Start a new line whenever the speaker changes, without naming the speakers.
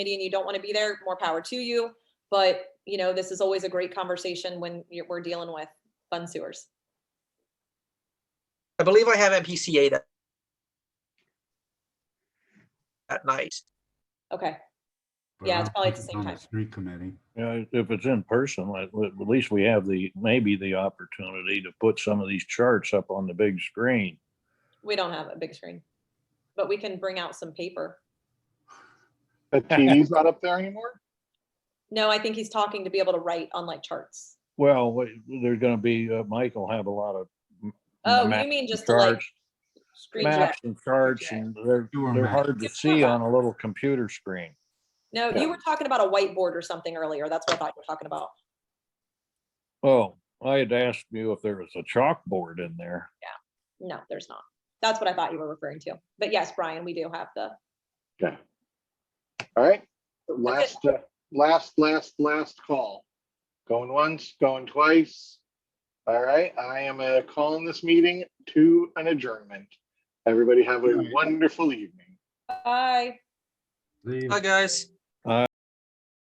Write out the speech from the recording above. committee and you don't want to be there, more power to you. But, you know, this is always a great conversation when you're, we're dealing with fund sewers.
I believe I have MPCA that at night.
Okay,
but
Yeah,
I
it's
don't
probably at
think
the
it's
same
on
time.
Street committee.
Yeah, if it's in person, at, at least we have the, maybe the opportunity to put some of these charts up on the big screen.
we don't have a big screen, but we can bring out some paper.
That TV's not up there anymore?
No, I think he's talking to be able to write on like charts.
Well, wait, there's gonna be, uh, Michael have a lot of. m-
Oh,
maps
you mean just
and
to like
charts-
screen share?
Maps and charts and they're,
You were
they're
mad.
hard to see on a little computer screen.
No, you were talking about a whiteboard or something earlier. That's what I thought you were talking about.
Oh, I had asked you if there was a chalkboard in there.
No, there's not. That's what I thought you were referring to. But yes, Brian, we do have the,
Okay. All right, last, uh, last, last, last call. Going once, going twice. All right, I am uh, calling this meeting to an adjournment. Everybody have a wonderful evening.
bye.
Leave.
Hi, guys.